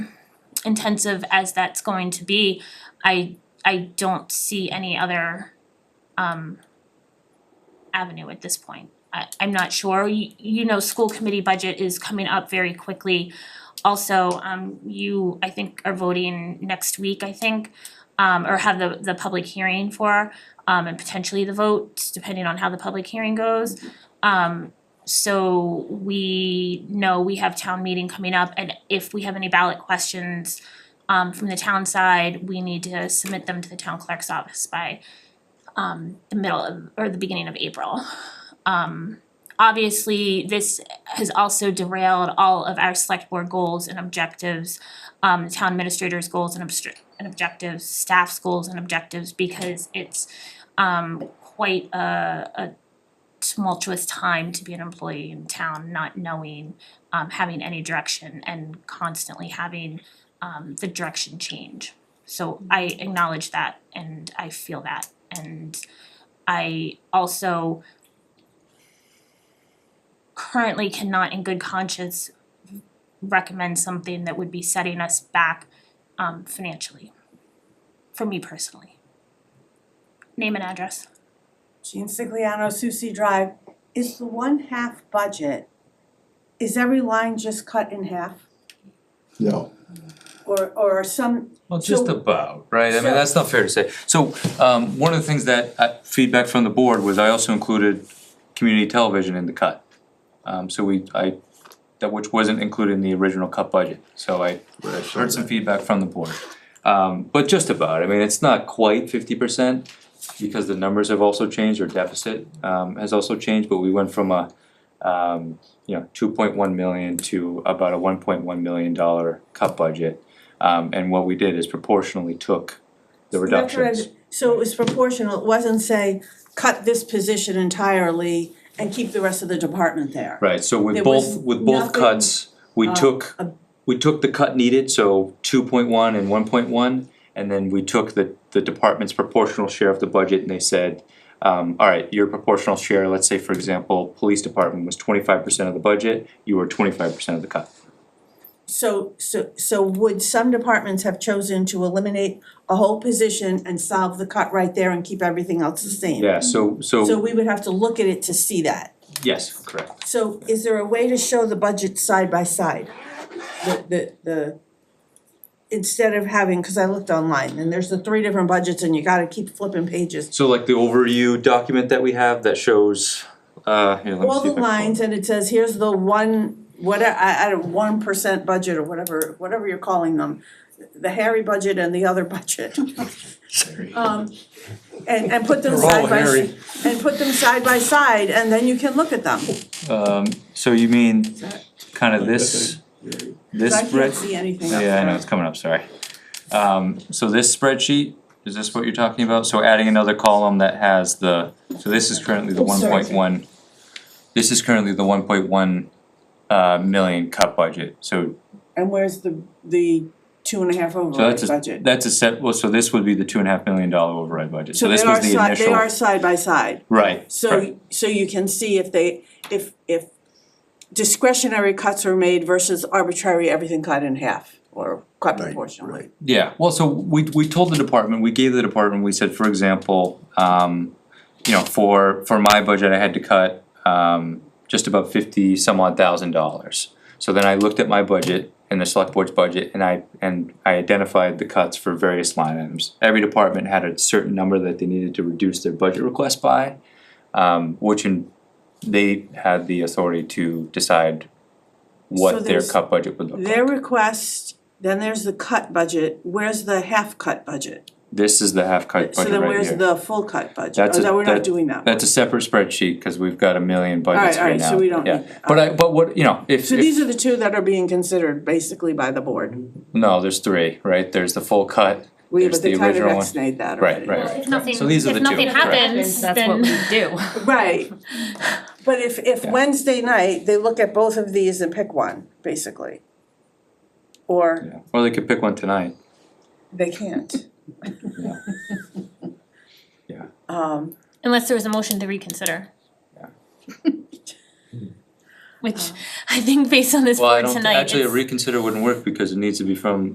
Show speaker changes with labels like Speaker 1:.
Speaker 1: intensive as that's going to be, I I don't see any other um avenue at this point. I I'm not sure, you you know, school committee budget is coming up very quickly. Also, um you, I think, are voting next week, I think, um or have the the public hearing for um and potentially the vote, depending on how the public hearing goes. Um so we know we have town meeting coming up and if we have any ballot questions um from the town side, we need to submit them to the town clerk's office by um the middle of or the beginning of April. Um obviously, this has also derailed all of our select board goals and objectives, um the town administrator's goals and obstr- and objectives, staff's goals and objectives because it's um quite a a tumultuous time to be an employee in town, not knowing, um, having any direction and constantly having, um, the direction change. So I acknowledge that and I feel that and I also currently cannot in good conscience recommend something that would be setting us back, um, financially, for me personally. Name and address.
Speaker 2: Jean Sigliano, Susie Drive, is the one half budget, is every line just cut in half?
Speaker 3: No,
Speaker 2: Or or are some,
Speaker 4: Well, just
Speaker 2: So-
Speaker 4: about, right? I
Speaker 2: So-
Speaker 4: mean, that's not fair to say. So, um, one of the things that uh, feedback from the board was I also included community television in the cut. Um, so we, I, that which wasn't included in the original cut budget, so I
Speaker 3: Right, so
Speaker 4: heard some
Speaker 3: that-
Speaker 4: feedback from the board. Um, but just about, I mean, it's not quite fifty percent because the numbers have also changed, or deficit um has also changed, but we went from a um, you know, two point one million to about a one point one million dollar cut budget. Um, and what we did is proportionally took the
Speaker 2: That's what I-
Speaker 4: reductions.
Speaker 2: so it was proportional, it wasn't say, cut this position entirely and keep the rest of the department there.
Speaker 4: Right, so with
Speaker 2: There
Speaker 4: both,
Speaker 2: was
Speaker 4: with both
Speaker 2: nothing, uh,
Speaker 4: cuts, we took,
Speaker 2: a-
Speaker 4: we took the cut needed, so two point one and one point one. And then we took the, the department's proportional share of the budget and they said, um, alright, your proportional share, let's say for example, police department was twenty-five percent of the budget, you were twenty-five percent of the cut.
Speaker 2: So so so would some departments have chosen to eliminate a whole position and solve the cut right there and keep everything else the same?
Speaker 4: Yeah, so,
Speaker 2: So
Speaker 4: so,
Speaker 2: we would have to look at it to see that.
Speaker 4: yes, correct.
Speaker 2: So is there a way to show the budget side by side? The the the instead of having, cause I looked online and there's the three different budgets and you gotta keep flipping pages.
Speaker 4: So like the overview document that we have that shows, uh, here, let me see if I.
Speaker 2: All the
Speaker 4: can-
Speaker 2: lines and it says, here's the one, what I I don't, one percent budget or whatever, whatever you're calling them. The hairy budget and the other budget. Um and and put them
Speaker 4: They're all
Speaker 2: side by
Speaker 4: hairy.
Speaker 2: and put them side by side and then you can look at them.
Speaker 4: Um, so you mean
Speaker 2: that-
Speaker 4: kind of this, this
Speaker 2: 'Cause I
Speaker 4: red-
Speaker 2: can't see anything up
Speaker 4: Yeah, I know,
Speaker 2: there.
Speaker 4: it's coming up, sorry. Um, so this spreadsheet, is this what you're talking about? So adding another column that has the, so this is currently the one point one. This is currently the one point one uh million cut budget, so
Speaker 2: And where's the the two and a half
Speaker 4: so
Speaker 2: override
Speaker 4: that's a,
Speaker 2: budget?
Speaker 4: that's a set, well, so this would be the two and a half million dollar override budget, so
Speaker 2: So
Speaker 4: this
Speaker 2: they
Speaker 4: was
Speaker 2: are
Speaker 4: the
Speaker 2: side, they
Speaker 4: initial,
Speaker 2: are side by side,
Speaker 4: right, correct.
Speaker 2: so so you can see if they, if if discretionary cuts are made versus arbitrary everything cut in half or cut
Speaker 3: right,
Speaker 2: proportionally.
Speaker 3: right.
Speaker 4: Yeah, well, so we we told the department, we gave the department, we said, for example, um, you know, for for my budget, I had to cut um just about fifty some odd thousand dollars. So then I looked at my budget and the select board's budget and I and I identified the cuts for various line items. Every department had a certain number that they needed to reduce their budget request by, um which in they had the authority to decide
Speaker 2: So
Speaker 4: what their
Speaker 2: there's-
Speaker 4: cut budget would look like.
Speaker 2: Their request, then there's the cut budget, where's the half cut budget?
Speaker 4: This is the half cut budget
Speaker 2: So
Speaker 4: right here.
Speaker 2: then where's the full cut budget?
Speaker 4: That's
Speaker 2: Oh,
Speaker 4: a-
Speaker 2: no, we're
Speaker 4: that-
Speaker 2: not doing that.
Speaker 4: That's a separate spreadsheet, cause we've got a million
Speaker 2: Alright,
Speaker 4: budgets right
Speaker 2: alright,
Speaker 4: now, yeah.
Speaker 2: so we don't need that.
Speaker 4: But I, but what, you know, if,
Speaker 2: So
Speaker 4: if,
Speaker 2: these are the two that are being considered basically by the board.
Speaker 4: no, there's three, right, there's the full cut,
Speaker 2: We,
Speaker 4: there's
Speaker 2: but
Speaker 4: the
Speaker 2: they kind of
Speaker 4: original one.
Speaker 2: ex-nayed that
Speaker 4: Right,
Speaker 2: already.
Speaker 4: right,
Speaker 1: Well,
Speaker 4: right,
Speaker 1: if nothing,
Speaker 4: so these are the
Speaker 1: if
Speaker 4: two,
Speaker 1: nothing
Speaker 4: correct.
Speaker 1: happens,
Speaker 5: That's what
Speaker 1: then,
Speaker 5: we do.
Speaker 2: Right, but if if
Speaker 4: Yeah.
Speaker 2: Wednesday night, they look at both of these and pick one, basically. Or
Speaker 4: Yeah. Or they could pick one tonight,
Speaker 2: they can't.
Speaker 4: Yeah. Yeah.
Speaker 2: Um,
Speaker 1: unless there was a motion to reconsider. Which I think based on this
Speaker 4: well, I
Speaker 1: board
Speaker 4: don't,
Speaker 1: tonight,
Speaker 4: actually
Speaker 1: it's,
Speaker 4: reconsider wouldn't work because it needs to be from